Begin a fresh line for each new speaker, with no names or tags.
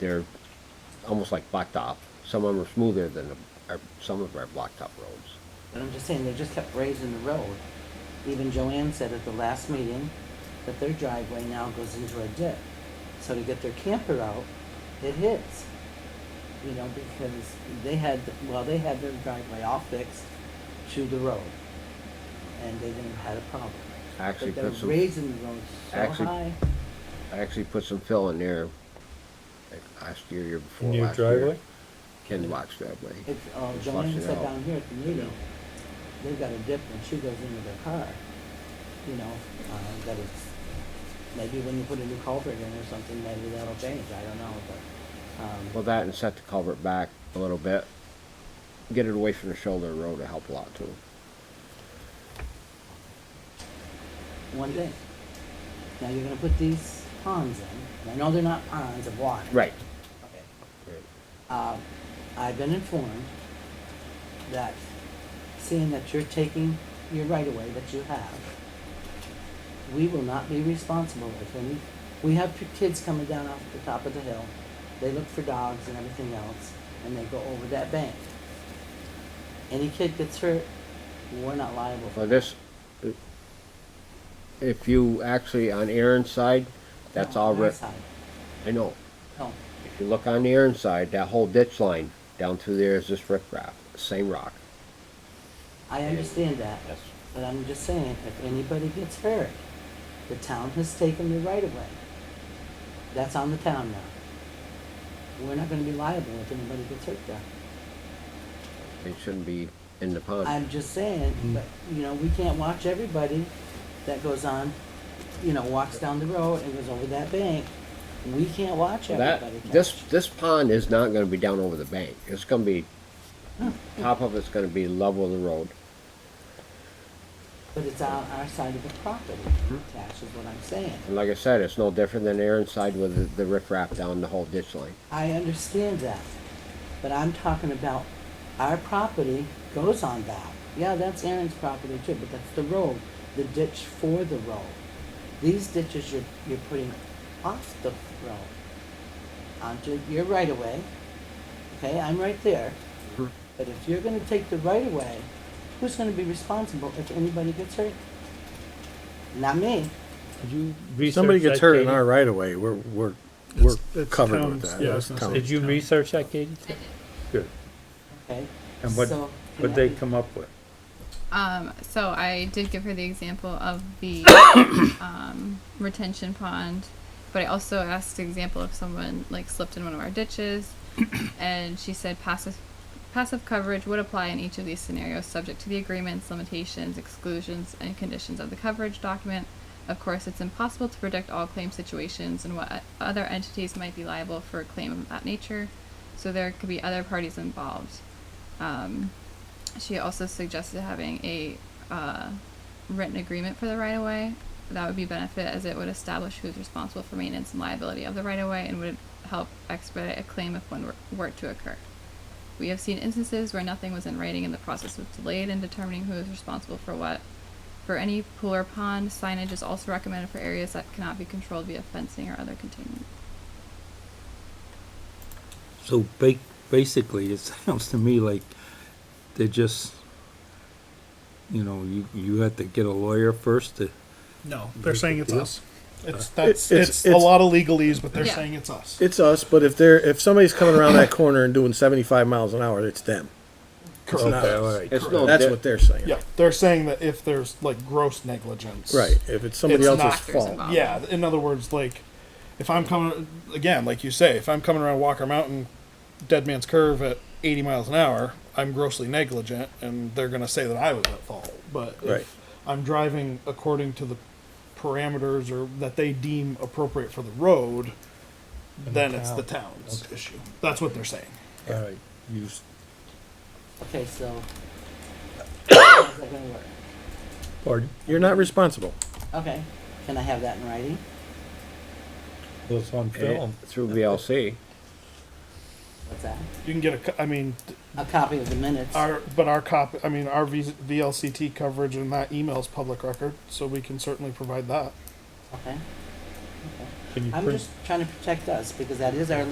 they're almost like blacktop. Some of them are smoother than, the- our- some of our blacktop roads.
But I'm just saying, they just kept raising the road. Even Joanne said at the last meeting that their driveway now goes into a dip. So to get their camper out, it hits. You know, because they had, well, they had their driveway all fixed to the road. And they didn't have a problem.
I actually
But
put
they're
some-
raising the road so
actually-
high.
I actually put some fill in there like, last year, year before
In your
last year.
driveway?
Ken Block's driveway.
It's, uh,
Just flush
Joanne
it
said
out.
down here at the meeting, they've got a dip when she goes into their car. You know, uh, that it's, maybe when you put a new culvert in or something, maybe that'll change, I don't know, but,
Well,
um,
that and set the culvert back a little bit. Get it away from the shoulder of the road to help a lot too.
one thing. Now you're gonna put these ponds in, and I know they're not ponds of water.
Right.
Okay. Uh, I've been informed that seeing that you're taking your right of way that you have, we will not be responsible if any, we have p- kids coming down off the top of the hill. They look for dogs and everything else, and they go over that bank. Any kid gets hurt, we're not liable for
Well,
that.
this, if you actually, on Aaron's side, that's
No,
all
my
re-
side.
I know.
No,
If you look on the Aaron side, that whole ditch line down through there is this riprap, same rock.
I understand that.
Yes.
But I'm just saying, if anybody gets hurt, the town has taken the right of way. That's on the town now. We're not gonna be liable if anybody gets hurt there.
It shouldn't be in the pond.
I'm just saying,
Mm.
but, you know, we can't watch everybody that goes on, you know, walks down the road and goes over that bank. We can't watch
That,
everybody. catch.
this, this pond is not gonna be down over the bank. It's gonna be, top of it's gonna be level of the road.
But it's on our side of the property,
Hmm.
Tash, is what I'm saying.
And like I said, it's no different than Aaron's side with the, the riprap down the whole ditch line.
I understand that, but I'm talking about our property goes on that. Yeah, that's Aaron's property too, but that's the road, the ditch for the road. These ditches you're, you're putting off the road onto your right of way. Okay, I'm right there.
Mm-hmm.
Mhm.
But if you're gonna take the right of way, who's gonna be responsible if anybody gets hurt? Not me.
Did you
If somebody
research
gets
that,
hurt in
Katie?
our right of way, we're, we're, we're
That's- that's
covered with
town's-
that.
yeah, I
That's
was gonna say.
town.
Did you research that, Katie? Good.
Okay.
And what-
So,
What'd they come up with?
Um, so I did give her the example of the um, retention pond, but I also asked the example if someone like slipped in one of our ditches, and she said passive passive coverage would apply in each of these scenarios, subject to the agreements, limitations, exclusions, and conditions of the coverage document. Of course, it's impossible to predict all claim situations and what other entities might be liable for a claim of that nature, so there could be other parties involved. Um, she also suggested having a uh, written agreement for the right of way. That would be benefit as it would establish who's responsible for maintenance and liability of the right of way and would help expedite a claim if one were, were to occur. We have seen instances where nothing was in writing and the process was delayed in determining who is responsible for what. For any pool or pond, signage is also recommended for areas that cannot be controlled via fencing or other containment.
So ba- basically, it sounds to me like they just, you know, you, you have to get a lawyer first to,
No, they're saying it's us. It's
It's-
that's it's,
it's-
a
it's-
lot of legalese, but they're
Yeah.
saying it's us.
It's us, but if they're if somebody's coming around that corner and doing seventy five miles an hour, it's them. It's not
okay,
us.
all right.
It's no,
That's
di-
what they're saying.
yeah, they're saying that if there's like gross negligence,
Right. If it's somebody
It's
else's
not-
Factors
fault.
involved.
Yeah, in other words, like if I'm coming again, like you say, if I'm coming around Walker Mountain, Dead Man's Curve at 80 miles an hour, I'm grossly negligent, and they're gonna say that I was at fault. But
Right.
if I'm driving according to the parameters or that they deem appropriate for the road, then it's the town's issue. That's what they're saying.
All right, you, s-
Okay, so. How's that gonna work?
pardon?
You're not responsible.
Okay, can I have that in writing?
Well, it's on
eh,
film.
through VLC.
What's that?
You can get a, co- I mean,
A copy of the minutes.
Our, but our copy, I mean, our V- VLCT coverage and that email is public record, so we can certainly provide that.
Okay,
Can you
I'm
print
just trying to protect us because that is our